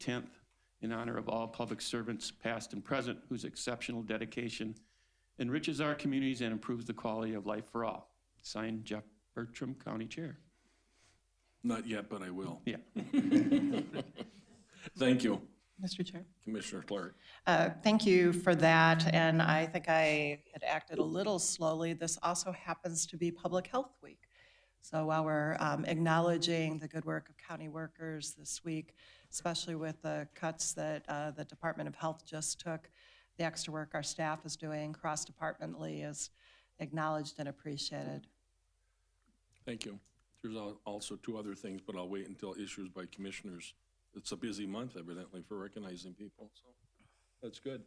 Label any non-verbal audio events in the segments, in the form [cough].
10th in honor of all public servants, past and present, whose exceptional dedication enriches our communities and improves the quality of life for all. Signed, Jeff Bertram, County Chair. Not yet, but I will. Yeah. [laughs] Thank you, Mr. Chair. Commissioner Clark. Uh, Thank you for that, and I think I had acted a little slowly. This also happens to be Public Health Week. So while we're um, acknowledging the good work of county workers this week, especially with the cuts that uh, the Department of Health just took, the extra work our staff is doing cross-departmentally is acknowledged and appreciated. Thank you. There's al- also two other things, but I'll wait until issues by commissioners. It's a busy month evidently for recognizing people, so that's good.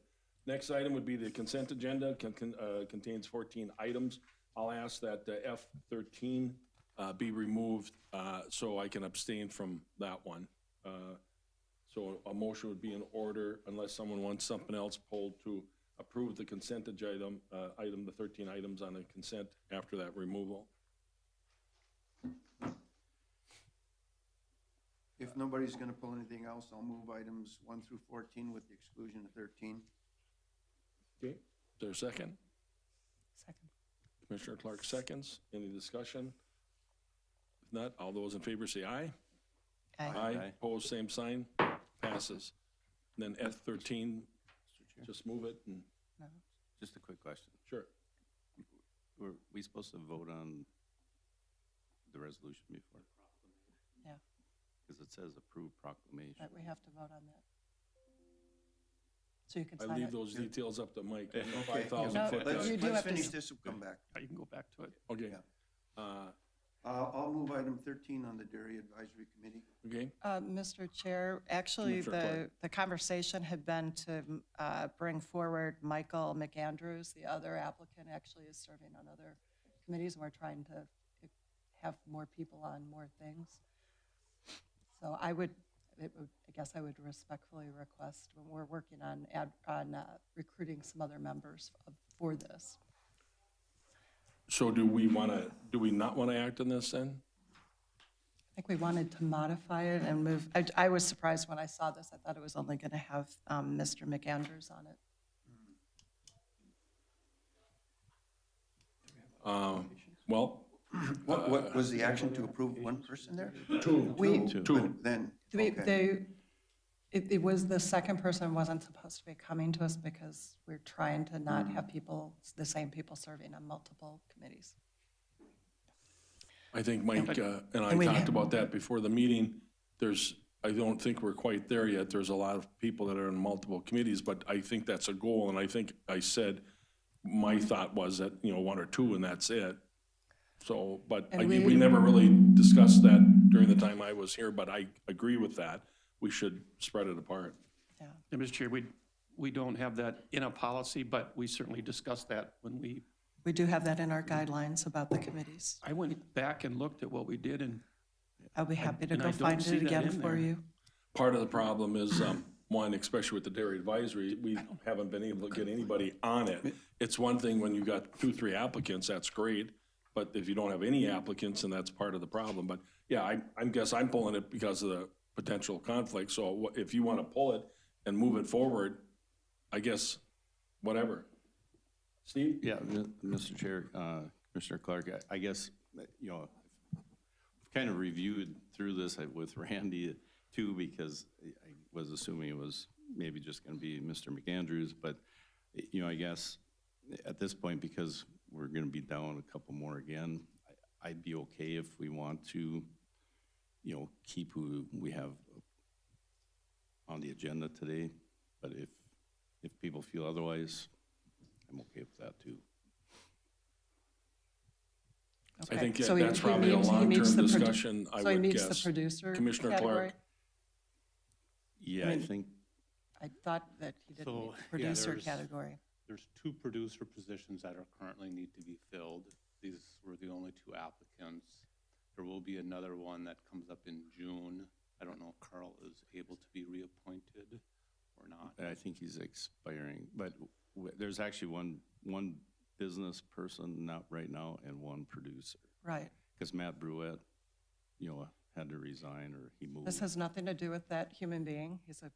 Next item would be the consent agenda, con- con- uh, contains 14 items. I'll ask that uh, F13 uh, be removed uh, so I can abstain from that one. Uh, So a motion would be in order unless someone wants something else pulled to approve the consent agenda, uh, item, the 13 items on the consent after that removal. If nobody's going to pull anything else, I'll move items 1 through 14 with the exclusion of 13. Okay, is there a second? Second. Commissioner Clark seconds. Any discussion? If not, all those in favor say aye. Aye. Opposed, same sign. Passes. And Then F13, just move it and, No. Just a quick question. sure. Were we supposed to vote on the resolution before? Yeah. Because it says approved proclamation. But we have to vote on that. So you can I sign it. leave those details up to Mike. Five No, thousand foot. but Let's, you guy. do let's have to- finish this, we'll come back. You can go back to it. Okay, Yeah. uh, Uh, I'll move item 13 on the Dairy Advisory Committee. okay, Uh, Mr. Chair, actually, Commissioner the, Clark. the conversation had been to uh, bring forward Michael McAndrews. The other applicant actually is serving on other committees, and we're trying to have more people on more things. So I would, it would- I guess I would respectfully request, when we're working on, ad- on uh, recruiting some other members of- for this. so do we want to, do we not want to act on this then? I think we wanted to modify it and move, I, I was surprised when I saw this. I thought it was only going to have um, Mr. McAndrews on it. Um, Well, What, what was the action to approve one person there? We, two, Then, They, okay. they- it, it was the second person wasn't supposed to be coming to us because we're trying to not have people, the same people serving on multiple committees. I think Mike uh, and And I we- talked about that before the meeting. There's, I don't think we're quite there yet. There's a lot of people that are in multiple committees, but I think that's a goal, and I think I said, my thought was that, you know, one or two and that's it. So, but I And mean, we- we never really discussed that during the time I was here, but I agree with that. We should spread it apart. Yeah. And Mr. Chair, we, we don't have that in a policy, but we certainly discussed that when we, We do have that in our guidelines about the committees. I went back and looked at what we did and I'll be happy to And I go don't find see it that again in for there. you. Part of the problem is, um, one, especially with the dairy advisory, we haven't been able to get anybody on it. It's one thing when you've got two, three applicants, that's great, but if you don't have any applicants, then that's part of the problem. But, yeah, I, I guess I'm pulling it because of the potential conflict, so wha- if you want to pull it and move it forward, I guess, whatever. Steve? Yeah, m- Mr. Chair, uh, Commissioner Clark, I- I guess, uh, you know, I've kind of reviewed through this uh, with [laughs] Randy uh, too, because I I was assuming it was maybe just going to be Mr. McAndrews, but, you know, I guess at this point, because we're going to be down a couple more again, I- I'd be okay if we want to, you know, keep who we have on the agenda today, but if, if people feel otherwise, I'm okay with that too. I Okay. think So he- that's he probably a meets- he meets long-term the produ- discussion, I So he would meets the guess. producer Commissioner Clark. category? Yeah, I think, I thought that he didn't So, meet the yeah, producer there's- category. There's two producer positions that are currently need to be filled. These were the only two applicants. There will be another one that comes up in June. I don't know if Carl is able to be reappointed or not. I think he's expiring, but w- there's actually one, one business person not right now and one producer. Right. Because Matt Bruett, you know, had to resign or he moved. This has nothing to do with that human being. He's a